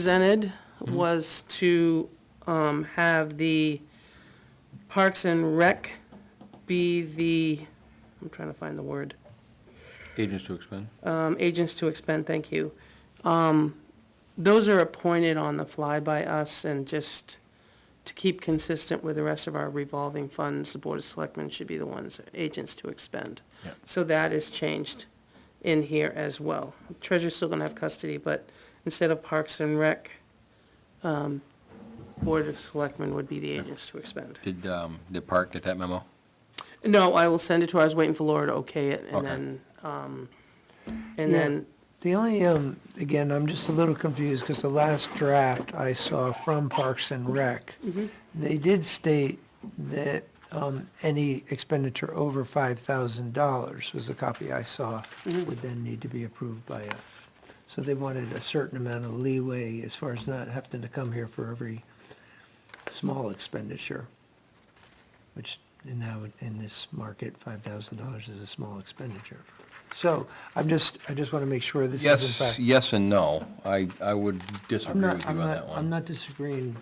presented was to um, have the Parks and Rec be the, I'm trying to find the word, Agents to expend. um, agents to expend, thank you. Um, Those are appointed on the fly by us and just to keep consistent with the rest of our revolving funds, the Board of Selectmen should be the ones, agents to expend. Yeah. So that is changed in here as well. Treasurer's still gonna have custody, but instead of Parks and Rec, um, Board of Selectmen would be the agents to expend. Did, um, did Park get that memo? No, I will send it to her, I was waiting for Laura to okay it, and Okay. then, um, and Yeah. then, The only, um, again, I'm just a little confused because the last draft I saw from Parks and Rec, they did state that, um, any expenditure over five thousand dollars was the copy I saw, would then need to be approved by us. So they wanted a certain amount of leeway as far as not having to come here for every small expenditure, which now in this market, five thousand dollars is a small expenditure. So I'm just, I just want to make sure this is in Yes, fact. yes and no. I, I would I'm disagree not, with you I'm on that not, I'm one. not disagreeing,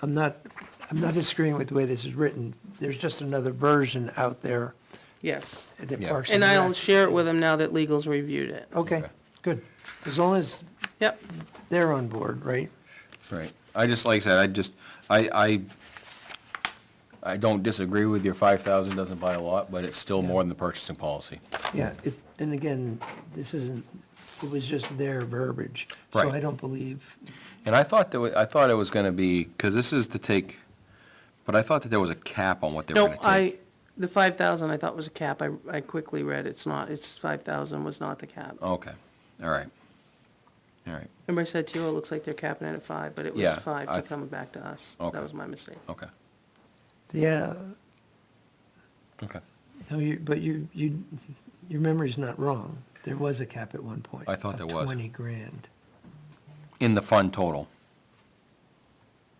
I'm not, I'm not disagreeing with the way this is written. There's just another version out there yes. that Yeah. Parks and And I'll Rec- share it with them now that legal's reviewed it. Okay, Okay. good. As long as Yep, they're on board, right? Right. I just, like I said, I just, I, I, I don't disagree with your five thousand doesn't buy a lot, but it's still more than the purchasing policy. Yeah, it, and again, this isn't, it was just their verbiage. So Right. I don't believe, And I thought that, wa- I thought it was gonna be, cause this is to take, but I thought that there was a cap on what they were no, gonna I, take. the five thousand I thought was a cap, I, I quickly read, it's not, it's five thousand was not the cap. Okay, all right. All right, Remember I said to you, it looks like they're capping it at five, but it was Yeah, five I to th- come back to us. Okay. That was my mistake. okay, yeah, okay. no, you, but you, you, your memory's not wrong. There was a cap at one point. I thought of there was. Twenty grand In the fund total.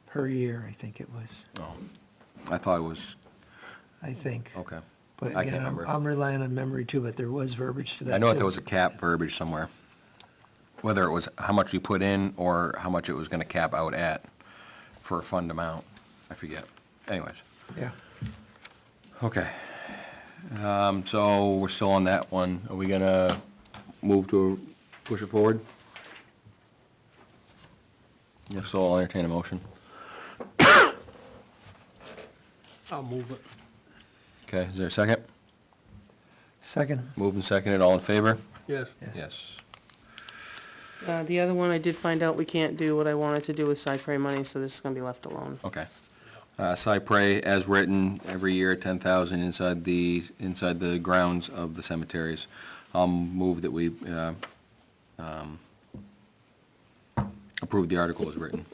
per year, I think it was, Oh, I thought it was, I think. okay. But I can't again, I'm, remember. I'm relying on memory too, but there was verbiage to that. I know that there too. was a cap verbiage somewhere, whether it was how much you put in or how much it was gonna cap out at for a fund amount. I forget. Anyways, Yeah. okay. Um, so we're still on that one. Are we gonna move to push it forward? If so, I'll entertain a motion. I'll move it. Okay, is there a second? Second, Moved and seconded, all in favor? Yes, yes. Yes. Uh, the other one, I did find out we can't do what I wanted to do with Cypre money, so this is gonna be left alone. Okay. Uh, Cypre, as written, every year, ten thousand inside the, inside the grounds of the cemeteries. I'll move that we, uh, um, approve the article as written.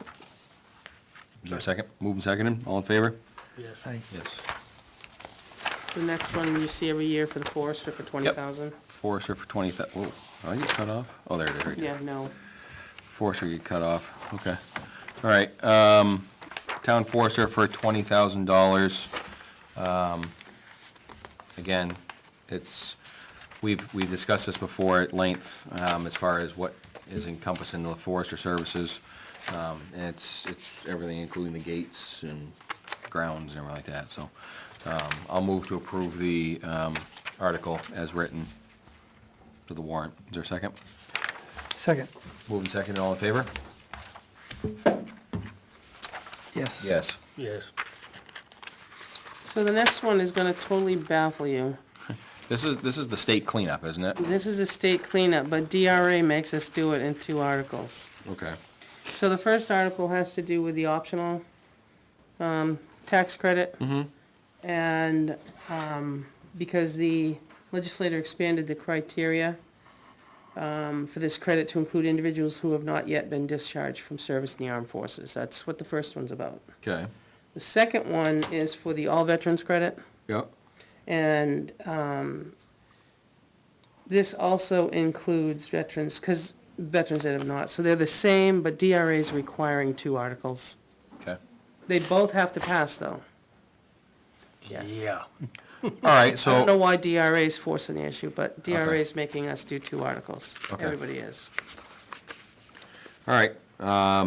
Is there a second? Move and second, all in favor? yes. I, Yes. The next one you see every year for the forester for twenty thousand. Forester for twenty thou, whoa, did I get cut off? Oh, there it is, right there. Yeah, no. Forester get cut off, okay. All right, um, town forester for twenty thousand dollars. Um, Again, it's, we've, we've discussed this before at length, um, as far as what is encompassed in the forester services. Um, and it's, it's everything, including the gates and grounds and everything like that, so. Um, I'll move to approve the, um, article as written to the warrant. Is there a second? second, Moving second, all in favor? yes. Yes. Yes. So the next one is gonna totally baffle you. This is, this is the state cleanup, isn't it? This is a state cleanup, but DRA makes us do it in two articles. Okay. So the first article has to do with the optional, um, tax credit. And, um, because the legislator expanded the criteria, um, for this credit to include individuals who have not yet been discharged from service in the armed forces. That's what the first one's about. Okay. The second one is for the all veterans credit. Yep. And um, this also includes veterans, because veterans that have not, so they're the same, but DRA is requiring two articles. Okay. They both have to pass, though. Yes. Yeah. All right, I don't know so, why DRA is forcing the issue, but DRA Okay. is making us do two articles. Okay. Everybody is. all right, Um,